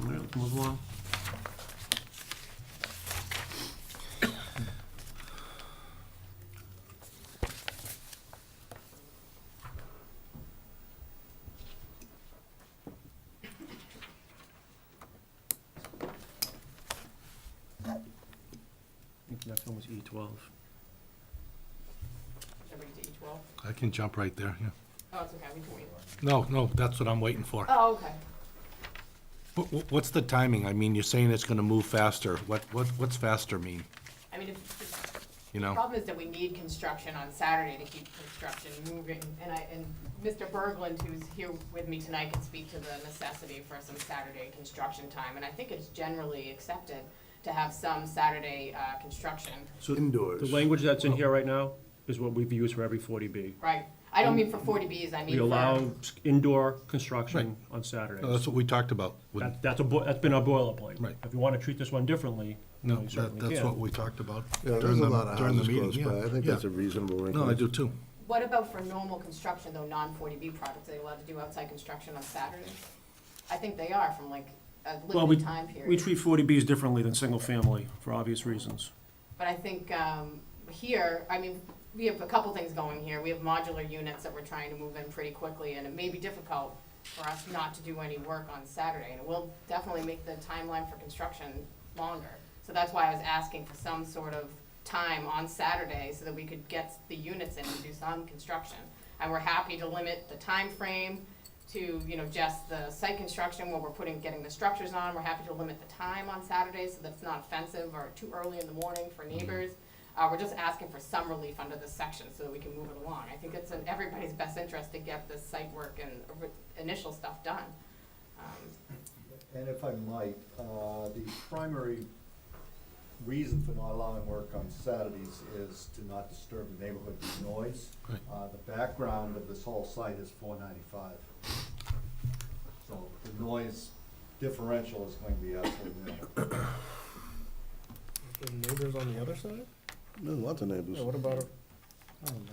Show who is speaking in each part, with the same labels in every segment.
Speaker 1: Move along. I think Next one was E twelve.
Speaker 2: Everybody to each wall?
Speaker 3: I can jump right there, yeah.
Speaker 2: Oh, it's okay, we can wait.
Speaker 3: No, no, that's what I'm waiting for.
Speaker 2: Oh, okay.
Speaker 3: Wh- wh- What's the timing? I mean, you're saying it's gonna move faster. What, what, what's faster mean,
Speaker 2: I mean, if,
Speaker 3: you
Speaker 4: Oh.
Speaker 2: the
Speaker 3: know?
Speaker 2: problem is that we need construction on Saturday to keep construction moving. And I, and Mr. Berglund, who's here with me tonight, can speak to the necessity for some Saturday construction time. And I think it's generally accepted to have some Saturday, uh, construction,
Speaker 1: So
Speaker 5: Indoors.
Speaker 1: The language that's in here right now is what we've used for every forty B.
Speaker 2: right? I
Speaker 4: Um,
Speaker 2: don't mean for forty Bs, I mean
Speaker 1: We
Speaker 2: for.
Speaker 1: allow indoor construction on Saturdays.
Speaker 3: No, That's what we talked about. with-
Speaker 1: That, that's a, bo- that's been our boilerplate.
Speaker 3: Right.
Speaker 1: If you wanna treat this one differently,
Speaker 3: No,
Speaker 1: you
Speaker 3: that,
Speaker 1: certainly
Speaker 3: that's what
Speaker 1: can.
Speaker 3: we talked about
Speaker 5: Yeah,
Speaker 3: during
Speaker 5: there's a lot
Speaker 3: the,
Speaker 5: of
Speaker 3: during the
Speaker 5: houses
Speaker 3: meeting,
Speaker 5: close by. I
Speaker 3: yeah.
Speaker 5: think
Speaker 3: yeah.
Speaker 5: that's a reasonable
Speaker 3: No, I do too.
Speaker 2: What about for normal construction, though, non-forty B projects, are they allowed to do outside construction on Saturdays? I think they are from like a
Speaker 4: Well, we,
Speaker 2: limited time period.
Speaker 4: we treat forty Bs differently than single family, for obvious reasons.
Speaker 2: But I think um, here, I mean, we have a couple things going here. We have modular units that we're trying to move in pretty quickly, and it may be difficult for us not to do any work on Saturday. And it will definitely make the timeline for construction longer. So that's why I was asking for some sort of time on Saturday so that we could get the units in and do some construction. And we're happy to limit the time frame to, you know, just the site construction where we're putting, getting the structures on. We're happy to limit the time on Saturdays so that it's not offensive or too early in the morning for neighbors. Uh, we're just asking for some relief under this section so that we can move it along. I think it's in everybody's best interest to get this site work and ori- initial stuff done. Um,
Speaker 6: And if I might, uh, the primary reason for not allowing work on Saturdays is to not disturb the neighborhood with noise.
Speaker 3: Right.
Speaker 6: Uh, The background of this whole site is four ninety-five. So the noise differential is going to be absolutely minimal.
Speaker 7: The neighbors on the other side?
Speaker 5: There's lots of neighbors.
Speaker 7: Yeah, what about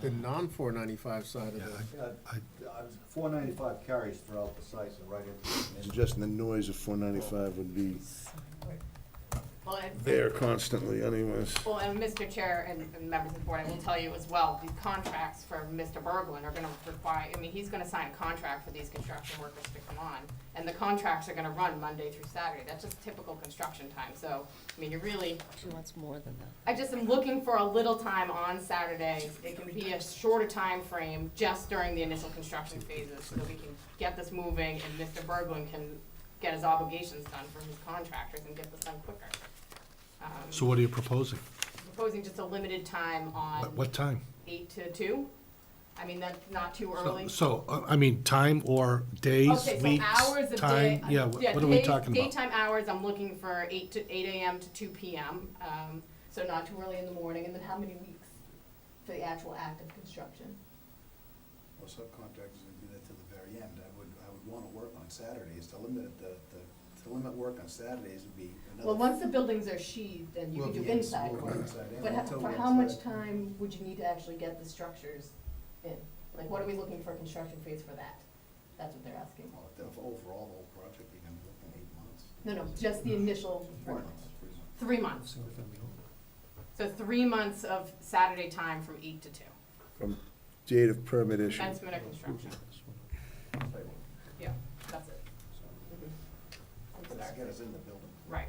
Speaker 7: the non four ninety-five side of
Speaker 3: Yeah,
Speaker 7: the?
Speaker 6: Uh, Four ninety-five carries throughout the site and right into the.
Speaker 5: Suggesting the noise of four ninety-five would be
Speaker 2: Well, and-
Speaker 5: there constantly anyways.
Speaker 2: Well, and Mr. Chair and and members of the board, I will tell you as well, these contracts for Mr. Berglund are gonna require, I mean, he's gonna sign a contract for these construction workers to come on. And the contracts are gonna run Monday through Saturday. That's just typical construction time. So, I mean, you really,
Speaker 8: She wants more than that.
Speaker 2: I just am looking for a little time on Saturday. It can be a shorter time frame, just during the initial construction phases, so that we can get this moving and Mr. Berglund can get his obligations done for his contractors and get this done quicker. Um,
Speaker 3: So what are you proposing?
Speaker 2: proposing just a limited time
Speaker 3: At
Speaker 2: on
Speaker 3: what time?
Speaker 2: eight to two? I mean, that's not too
Speaker 3: So-
Speaker 2: early.
Speaker 3: So, uh, I mean, time or days,
Speaker 2: Okay, so
Speaker 3: weeks,
Speaker 2: hours of day.
Speaker 3: time? Yeah, wh- what are we
Speaker 2: day-
Speaker 3: talking about?
Speaker 2: Daytime hours, I'm looking for eight to, eight AM to two PM, um, so not too early in the morning, and then how many weeks for the actual act of construction?
Speaker 9: Well, subcontractors would do that to the very end. I would, I would wanna work on Saturdays, to limit the, the, to limit work on Saturdays would be another.
Speaker 2: Well, once the buildings are sheathed, then you
Speaker 9: Well,
Speaker 2: can do
Speaker 9: yes,
Speaker 2: inside
Speaker 9: we'll
Speaker 2: work.
Speaker 9: do inside and
Speaker 2: But
Speaker 9: we'll
Speaker 2: ho-
Speaker 9: tell
Speaker 2: for
Speaker 9: you
Speaker 2: how much
Speaker 9: inside.
Speaker 2: time would you need to actually get the structures in? Like, what are we looking for a construction phase for that? That's what they're asking.
Speaker 9: Well, if the- Overall, the whole project, you're gonna be looking at eight months.
Speaker 2: No, no, just the initial
Speaker 9: Three
Speaker 2: work.
Speaker 9: months, three months.
Speaker 2: Three months. So three months of Saturday time from eight to two.
Speaker 5: From date of permit issue.
Speaker 2: That's minute construction. Yeah, that's it. Mhm.
Speaker 9: But that gets us in the building.
Speaker 2: Right.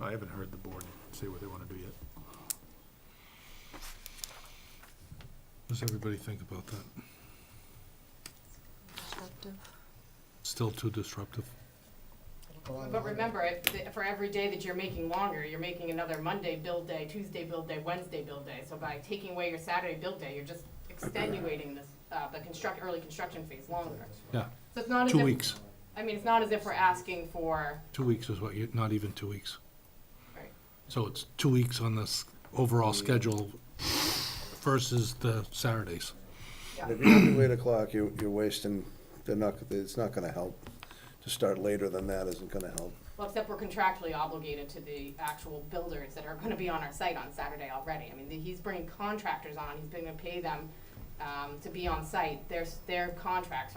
Speaker 3: I haven't heard the board say what they wanna do yet. What does everybody think about that?
Speaker 8: Disruptive.
Speaker 3: Still too disruptive?
Speaker 2: But remember, if, the- for every day that you're making longer, you're making another Monday build day, Tuesday build day, Wednesday build day. So by taking away your Saturday build day, you're just extenuating this, uh, the construct, early construction phase longer.
Speaker 3: Yeah,
Speaker 2: So it's not as if.
Speaker 3: two weeks,
Speaker 2: I mean, it's not as if we're asking for,
Speaker 3: two weeks is what you, not even two weeks.
Speaker 2: Right.
Speaker 3: So it's two weeks on this overall schedule versus the Saturdays.
Speaker 2: yeah.
Speaker 5: If you do eight o'clock, you're, you're wasting, they're not, it's not gonna help. To start later than that isn't gonna help.
Speaker 2: Well, except we're contractually obligated to the actual builders that are gonna be on our site on Saturday already. I mean, the- he's bringing contractors on, he's gonna pay them, um, to be on site. Their, their contracts